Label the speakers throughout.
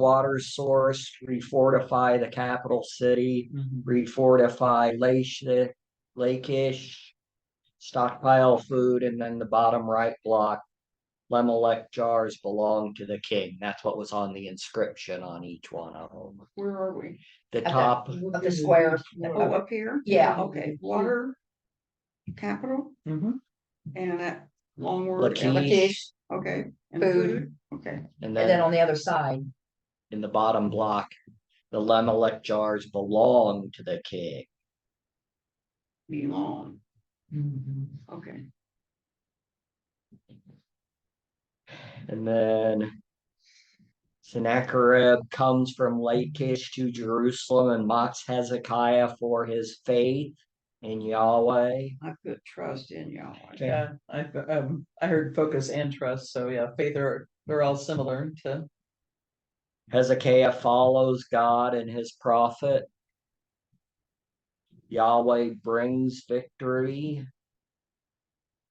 Speaker 1: water source, refortify the capital city, refortify Lake, Lakeish, stockpile food, and then the bottom right block, Lemelec jars belong to the king. That's what was on the inscription on each one of them.
Speaker 2: Where are we?
Speaker 1: The
Speaker 3: the-
Speaker 1: top,
Speaker 3: Of the square.
Speaker 2: Oh, up here?
Speaker 3: Yeah.
Speaker 2: Okay, water, capital,
Speaker 1: Mhm.
Speaker 2: and that long word.
Speaker 1: Lakeish,
Speaker 2: Okay. and
Speaker 3: Food.
Speaker 2: Okay,
Speaker 1: and
Speaker 3: And then
Speaker 1: then
Speaker 3: on the other side,
Speaker 1: in the bottom block, the Lemelec jars belong to the king.
Speaker 2: belong, okay.
Speaker 1: And then Sennacherib comes from Lachish to Jerusalem and mocks Hezekiah for his faith in Yahweh.
Speaker 2: I put trust in Yahweh.
Speaker 4: Yeah, I, um, I heard focus and trust, so yeah, faith are, they're all similar to,
Speaker 1: Hezekiah follows God and his prophet. Yahweh brings victory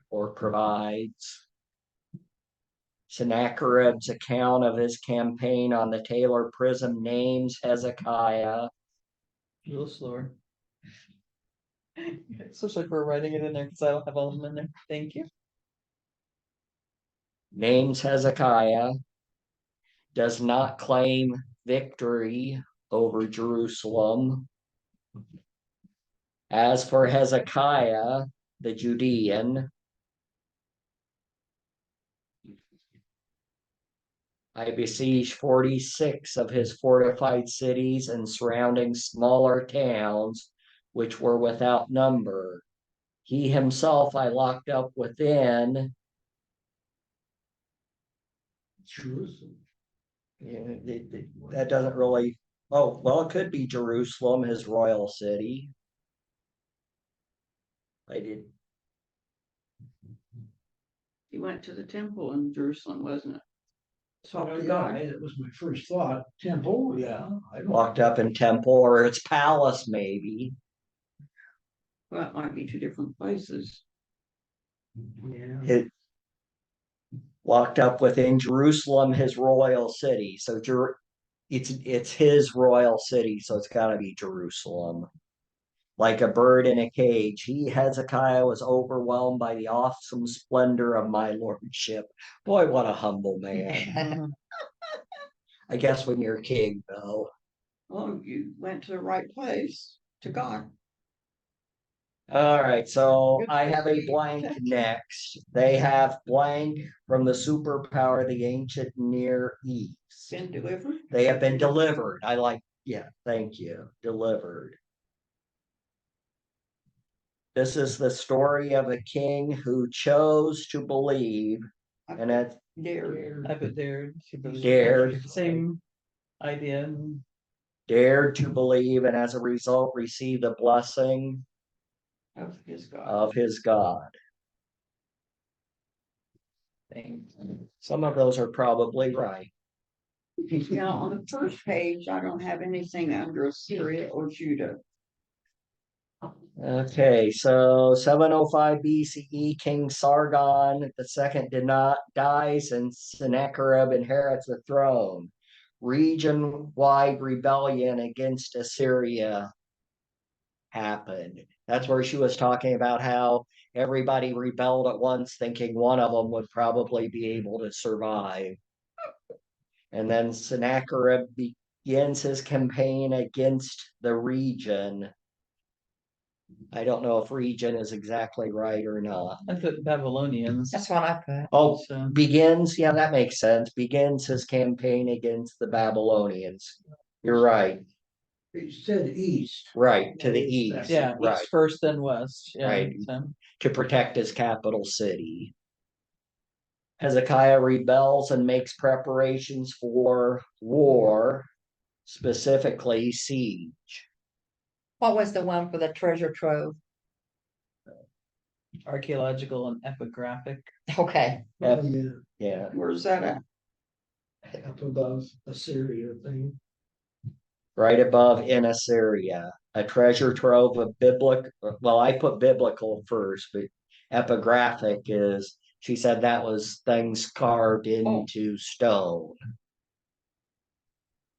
Speaker 1: or provides. Sennacherib's account of his campaign on the Taylor Prism names Hezekiah.
Speaker 4: a little slower. Especially if we're writing it in there, cause I don't have all of them in there, thank you.
Speaker 1: names Hezekiah, does not claim victory over Jerusalem. As for Hezekiah, the Judean, I besieged forty-six of his fortified cities and surrounding smaller towns, which were without number. He himself I locked up within, Yeah, it- it- that doesn't really, oh, well, it could be Jerusalem, his royal city. I did,
Speaker 2: He went to the temple in Jerusalem, wasn't it? Talked
Speaker 5: Oh,
Speaker 2: to
Speaker 5: yeah,
Speaker 2: God.
Speaker 5: I- that was my first thought, temple, yeah, I don't,
Speaker 1: locked up in temple or its palace maybe,
Speaker 2: Well, it might be two different places.
Speaker 5: yeah,
Speaker 1: it. Locked up within Jerusalem, his royal city, so Jer, it's, it's his royal city, so it's gotta be Jerusalem. Like a bird in a cage, he Hezekiah was overwhelmed by the awesome splendor of my lordship. Boy, what a humble man. I guess when you're a king, though.
Speaker 2: Well, Oh, you went to the right place, to God.
Speaker 1: All right, so
Speaker 2: Good
Speaker 1: I
Speaker 2: for
Speaker 1: have a
Speaker 2: you.
Speaker 1: blank next. They have blank from the superpower of the ancient Near East.
Speaker 2: Been delivered.
Speaker 1: They have been delivered. I like, yeah, thank you, delivered. This is the story of a king who chose to believe and it
Speaker 2: There.
Speaker 4: I put dared. she put-
Speaker 1: Dared.
Speaker 4: Same idea, and
Speaker 1: dared to believe and as a result received the blessing
Speaker 2: Of his God.
Speaker 1: of his God.
Speaker 4: thing.
Speaker 1: Some of those are probably right.
Speaker 2: Now, on the first page, I don't have anything under Assyria or Judah.
Speaker 1: Okay, so seven oh five BCE, King Sargon the second did not dies and Sennacherib inherits the throne. Region-wide rebellion against Assyria happened. That's where she was talking about how everybody rebelled at once, thinking one of them would probably be able to survive. And then Sennacherib begins his campaign against the region. I don't know if region is exactly right or not.
Speaker 4: I put Babylonians.
Speaker 3: that's what I put.
Speaker 1: Oh,
Speaker 4: so-
Speaker 1: begins, yeah, that makes sense. Begins his campaign against the Babylonians. You're right,
Speaker 5: it said east.
Speaker 1: right, to the east,
Speaker 4: Yeah,
Speaker 1: right,
Speaker 4: east first then west, yeah,
Speaker 1: Right.
Speaker 4: so,
Speaker 1: to protect his capital city. Hezekiah rebels and makes preparations for war, specifically siege.
Speaker 3: What was the one for the treasure trove?
Speaker 4: archaeological and epigraphic.
Speaker 3: Okay,
Speaker 5: Oh, yeah,
Speaker 1: Yeah,
Speaker 2: Where's that at?
Speaker 5: up above Assyria thing,
Speaker 1: right above in Assyria, a treasure trove of biblical, well, I put biblical first, but epigraphic is, she said that was things carved into stone.